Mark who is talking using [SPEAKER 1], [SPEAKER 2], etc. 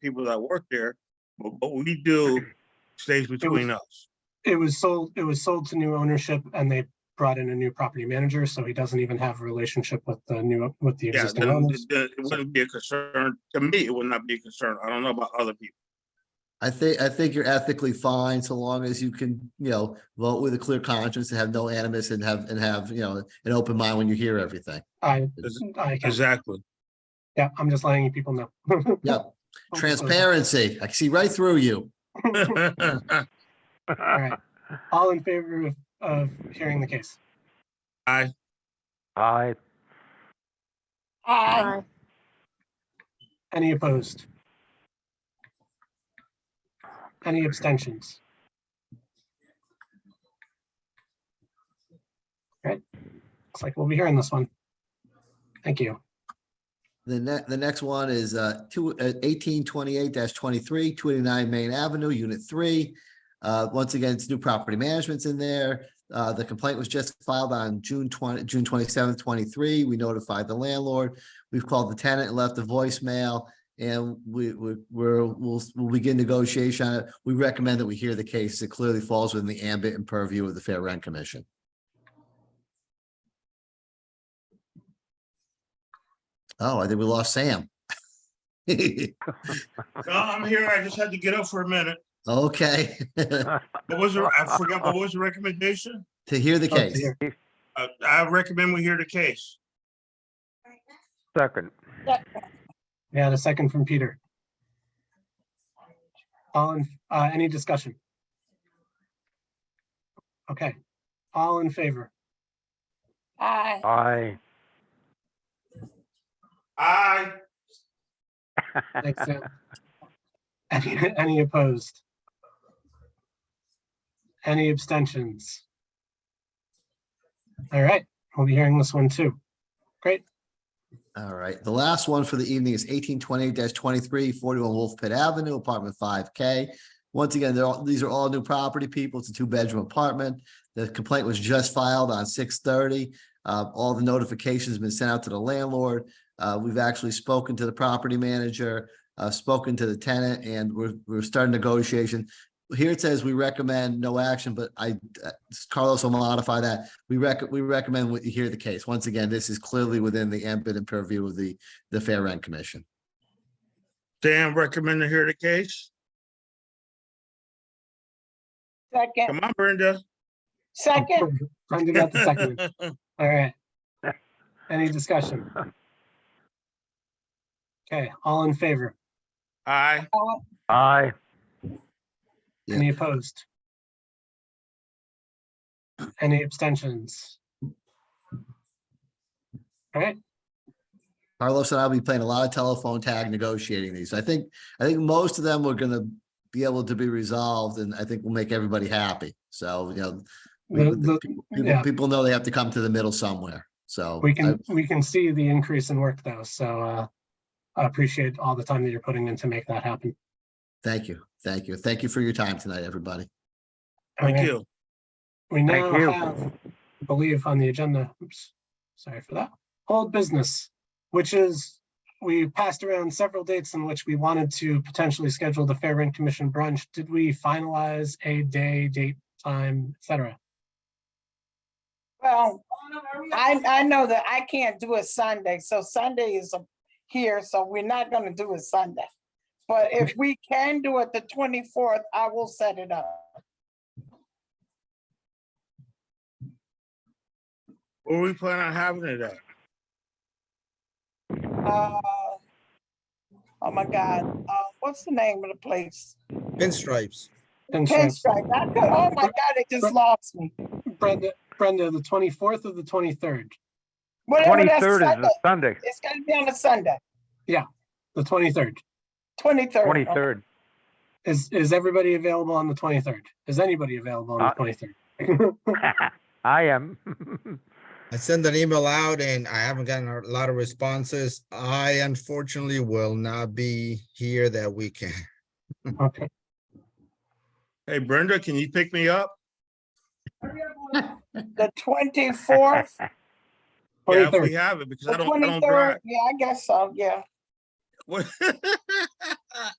[SPEAKER 1] people that work there, but what we do stays between us.
[SPEAKER 2] It was sold, it was sold to new ownership and they brought in a new property manager, so he doesn't even have a relationship with the new, with the
[SPEAKER 1] Yeah,
[SPEAKER 2] existing
[SPEAKER 1] then
[SPEAKER 2] owners.
[SPEAKER 1] the- the- it wouldn't be a concern, to me, it would not be a concern. I don't know about other people.
[SPEAKER 3] I think, I think you're ethically fine so long as you can, you know, vote with a clear conscience and have no animus and have, and have, you know, an open mind when you hear everything.
[SPEAKER 2] I,
[SPEAKER 1] Is-
[SPEAKER 2] I, can-
[SPEAKER 1] Exactly.
[SPEAKER 2] yeah, I'm just letting you people know.
[SPEAKER 3] Yep.
[SPEAKER 2] Oh,
[SPEAKER 3] Transparency. I see right through you.
[SPEAKER 1] Aye.
[SPEAKER 2] All right, all in favor of, of hearing the case?
[SPEAKER 4] Aye.
[SPEAKER 5] Aye.
[SPEAKER 2] Any opposed? Any abstentions? All right, looks like we'll be hearing this one. Thank you.
[SPEAKER 3] The ne- the next one is uh two eighteen twenty-eight dash twenty-three, two eighty-nine Main Avenue, Unit Three. Uh, once again, it's new property management's in there. Uh, the complaint was just filed on June twenty, June twenty-seventh, twenty-three. We notified the landlord. We've called the tenant and left a voicemail. And we we we're we'll we'll begin negotiation. on it. We recommend that we hear the case. It clearly falls within the ambit and purview of the Fair Rent Commission. Oh, I think we lost Sam.
[SPEAKER 1] No, I'm here. I just had to get up for a minute.
[SPEAKER 3] Okay, to
[SPEAKER 1] What was, the- I forgot, what was the recommendation?
[SPEAKER 3] hear the
[SPEAKER 2] Love Oh, to
[SPEAKER 3] case.
[SPEAKER 2] hear.
[SPEAKER 1] I, I recommend we hear the case.
[SPEAKER 4] Second.
[SPEAKER 2] We had a second from Peter. All in, uh, any discussion? Okay, all in favor?
[SPEAKER 5] Aye.
[SPEAKER 4] Aye.
[SPEAKER 1] Aye.
[SPEAKER 2] Thanks, Sam. Any, any opposed? Any abstentions? All right, we'll be hearing this one too.
[SPEAKER 3] All right, the last one for the evening is eighteen twenty-eight 23 twenty-three, forty-one Wolf Pit Avenue, apartment five K. Once again, they're all, these are all new property people. It's a two-bedroom apartment. The complaint was just filed on six thirty. Uh, all the notifications have been sent out to the landlord. Uh, we've actually spoken to the property manager, uh, spoken to the tenant, and we're, we're starting negotiation. Here it says we recommend no action, but I, uh, Carlos will modify that. We rec, we recommend what you hear the case. Once again, this is clearly within the ambit and purview of the, the Fair Rent Commission.
[SPEAKER 1] Dan recommend to hear the case.
[SPEAKER 5] Second,
[SPEAKER 1] Come on, Brenda.
[SPEAKER 5] second,
[SPEAKER 2] Brendan got the second. All right. Any discussion? Okay, all in favor?
[SPEAKER 1] Aye.
[SPEAKER 4] Aye.
[SPEAKER 3] Yeah.
[SPEAKER 2] Any opposed? Any abstentions? All right,
[SPEAKER 3] Carlos and I will be playing a lot of telephone tag negotiating these. I think, I think most of them are gonna be able to be resolved and I think we'll make everybody happy. So, you know, we-
[SPEAKER 2] the, the,
[SPEAKER 3] people,
[SPEAKER 2] yeah.
[SPEAKER 3] people know they have to come to the middle somewhere. So
[SPEAKER 2] we
[SPEAKER 3] I-
[SPEAKER 2] can, we can see the increase in work though, so, uh, I appreciate all the time that you're putting in to make that happen.
[SPEAKER 3] thank you, thank you, thank you for your time tonight, everybody.
[SPEAKER 2] All
[SPEAKER 1] Thank
[SPEAKER 2] right,
[SPEAKER 1] you.
[SPEAKER 2] We now
[SPEAKER 4] Thank you.
[SPEAKER 2] have, I believe on the agenda, oops, sorry for that, old business, which is, we passed around several dates in which we wanted to potentially schedule the Fair Rent Commission brunch. Did we finalize a day, date, time, et cetera?
[SPEAKER 5] well, I, I know that I can't do it Sunday, so Sunday is a- here, so we're not gonna do it Sunday. But if we can do it the twenty-fourth, I will set it up.
[SPEAKER 1] Where we plan on having it at?
[SPEAKER 5] Uh, Oh my God, uh, what's the name of the place?
[SPEAKER 6] Pinstripes.
[SPEAKER 2] Pinstripes.
[SPEAKER 5] Pinstripe, I could, oh my God, it just lost me.
[SPEAKER 2] Brenda, Brenda, the twenty-fourth or the twenty-third?
[SPEAKER 5] Whatever that's
[SPEAKER 4] Twenty-third is
[SPEAKER 5] Sunday,
[SPEAKER 4] a Sunday,
[SPEAKER 5] it's gonna be on a Sunday,
[SPEAKER 2] The twenty-third.
[SPEAKER 5] twenty-third.
[SPEAKER 4] twenty-third.
[SPEAKER 2] Is, is everybody available on the twenty-third? Is anybody available on the
[SPEAKER 4] Uh,
[SPEAKER 2] twenty-third?
[SPEAKER 4] I am.
[SPEAKER 6] I sent an email out and I haven't gotten a lot of responses. I unfortunately will not be here that weekend.
[SPEAKER 2] Okay,
[SPEAKER 1] Hey, Brenda, can you pick me up?
[SPEAKER 5] The twenty-fourth?
[SPEAKER 1] Yeah, if
[SPEAKER 2] twenty-third.
[SPEAKER 1] we have it, because
[SPEAKER 5] The
[SPEAKER 1] I don't, I don't
[SPEAKER 5] twenty-third,
[SPEAKER 1] drive.
[SPEAKER 5] yeah, I guess so, yeah.
[SPEAKER 1] What-